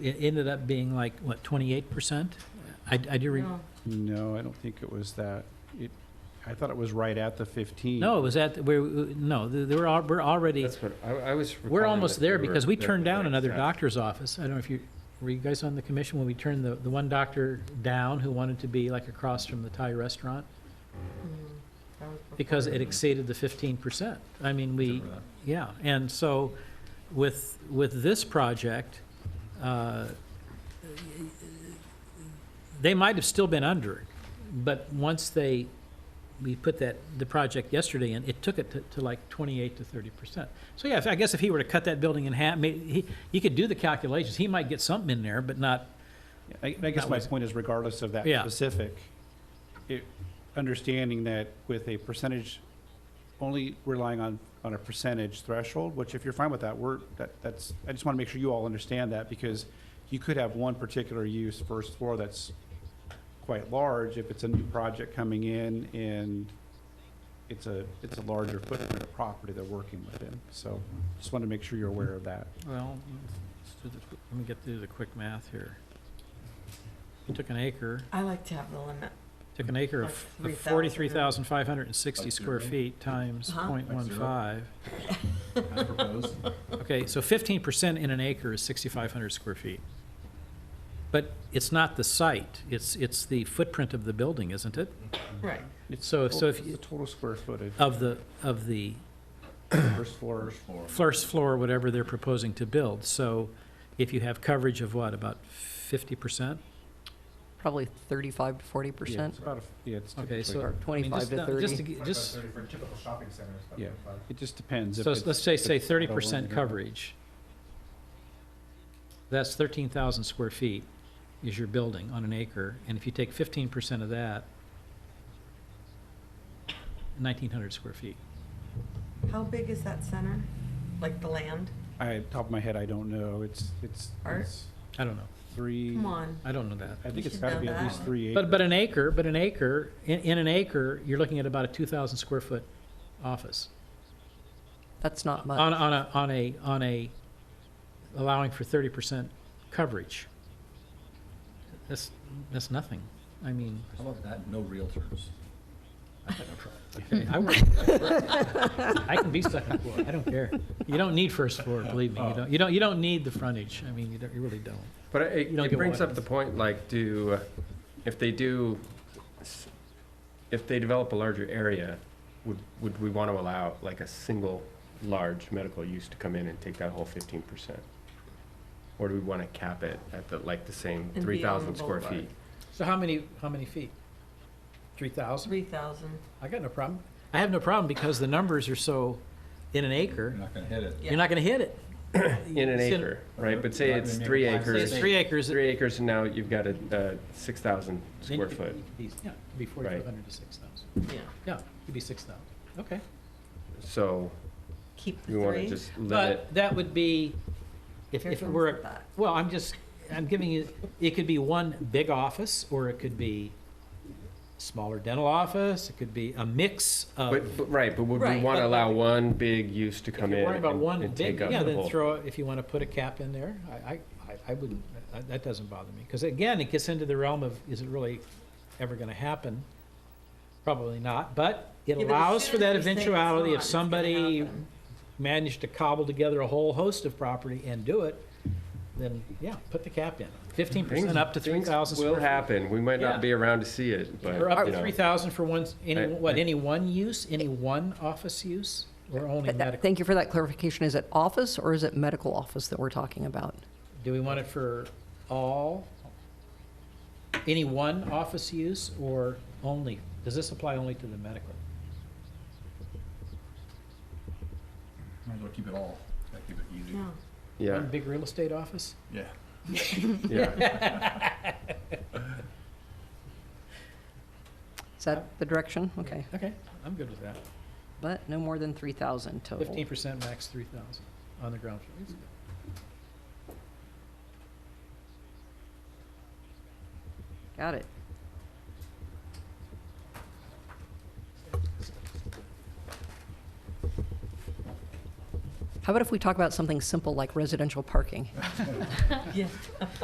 it ended up being like, what, 28%? I, I do, re- No. No, I don't think it was that. It, I thought it was right at the 15. no, it was at, we're, no, th- they we're, al- we're already, That's what, I, I was. we're recalling almost that there were because we there turned for down that, another yeah. doctor's office. I don't know if you, were you guys on the commission when we turned the, the one doctor down who wanted to be like across from the Thai restaurant? Mm. That was before. Because it exceeded the 15%. I mean, we, Yeah, and so with, with this project, uh, they might have still been under it, but once they, we put that, the project yesterday in, it took it to, to like 28 to 30%. So yeah, if- I guess if he were to cut that building in half, may- he, he could do the calculations, he might get something in there, but not, I, I guess That my was- point is regardless of that Yeah. specific, it, understanding that with a percentage, only relying on, on a percentage threshold, which if you're fine with that, we're, that, that's, I just want to make sure you all understand that because you could have one particular use first floor that's quite large if it's a new project coming in and it's a, it's a larger footprint of property they're working within. So just want to make sure you're aware of that. well, let's do the qu- let me get through the quick math here. You took an acre. I like to have the limit. Took an acre of Like 3,000. forty-three thousand five hundred and sixty square feet times Huh? point one five. As proposed. Okay, so fifteen percent in an acre is sixty-five hundred square feet. But it's not the site, it's, it's the footprint of the building, isn't it? Right. It's So- the so if total- you- it's The total square footage, Of the, of the first floor, first floor, whatever they're proposing to build. So if you have coverage of what, about fifty percent? Probably 35 to 40 Yeah, it's percent, about, a- yeah, it's Okay, typically- so- or 25 to 30. Just, For typical shopping centers. Yeah, it just depends. if So it's- let's say, if say it's not thirty a percent linear- coverage. That's thirteen thousand square feet is your building on an acre, and if you take fifteen percent of that, nineteen hundred square feet. How big is that center? Like the land? I, top of my head, I don't know. It's, it's, Art? it's I don't know. three, Come on. I don't know that. I think You it's should gotta know be at that. least three acres. But, but an acre, but an acre, in, in an acre, you're looking at about a two thousand square foot office. That's not much. On, on a, on a, on a, allowing for thirty percent coverage. That's, that's nothing. I mean. How about that, no realtors? I think I'm trying. Okay, I work. I can be second floor, I don't care. You don't need first floor, believe me, you don't, you don't, you don't need the frontage, I mean, you don't, you really don't. But it, You don't it get brings one. up the point, like, do, if they do, s- if they develop a larger area, would, would we want to allow like a single large medical use to come in and take that whole fifteen percent? Or do we want to cap it at the, like, the same be on three the thousand square boulevard. feet? So how many, how many feet? Three thousand? Three thousand. I got no problem. I have no problem because the numbers are so, in an You're acre, not gonna hit it. you're not gonna hit it. In an It's acre, right? But say You're not it's gonna make three a five Say It's acres, six. three acres. three acres and now you've got a, uh, six thousand then you square could- you foot. could be- Yeah, it could be forty-five hundred to six thousand. Yeah. Yeah, it could be six thousand, okay. So Keep the we want to three. just let it, But that would be, if, Here if it comes were, the a- thought. well, I'm just, I'm giving you, it could be one big office, or it could be smaller dental office, it could be a mix of. but, but- right, but would we Right, want but- to allow one big use to If come you're in worried and about one and big, take up yeah, the then whole? throw, if you want to put a cap in there, I, I, I- I wouldn't, that- that doesn't bother me. Because again, it gets into the realm of, is it really ever going to happen? Probably not, but it Yeah, but as allows soon for as that we say it's eventuality not, if it's gonna somebody happen. managed to cobble together a whole host of property and do it, then, yeah, put the cap in. Fifteen percent up to three Things- thousand things square Will happen. We might Yeah. not be around to see it, but. Or up you to know. three thousand for one, any, I- what, any one use, any one office use, or only But that- medical? Thank you for that clarification. Is it office or is it medical office that we're talking about? Do we want it for all, any one office use, or only? Does this apply only to the medical? Might as well keep it all, Gotta keep it easy. Yeah. Yeah, One big real estate office? Yeah. yeah. Is that the direction? Okay. Okay, I'm good with that. But no more than 3,000 Oh. total. Fifteen percent max three thousand on the ground floor. Got it. How about if we talk about something simple like residential parking? Yeah.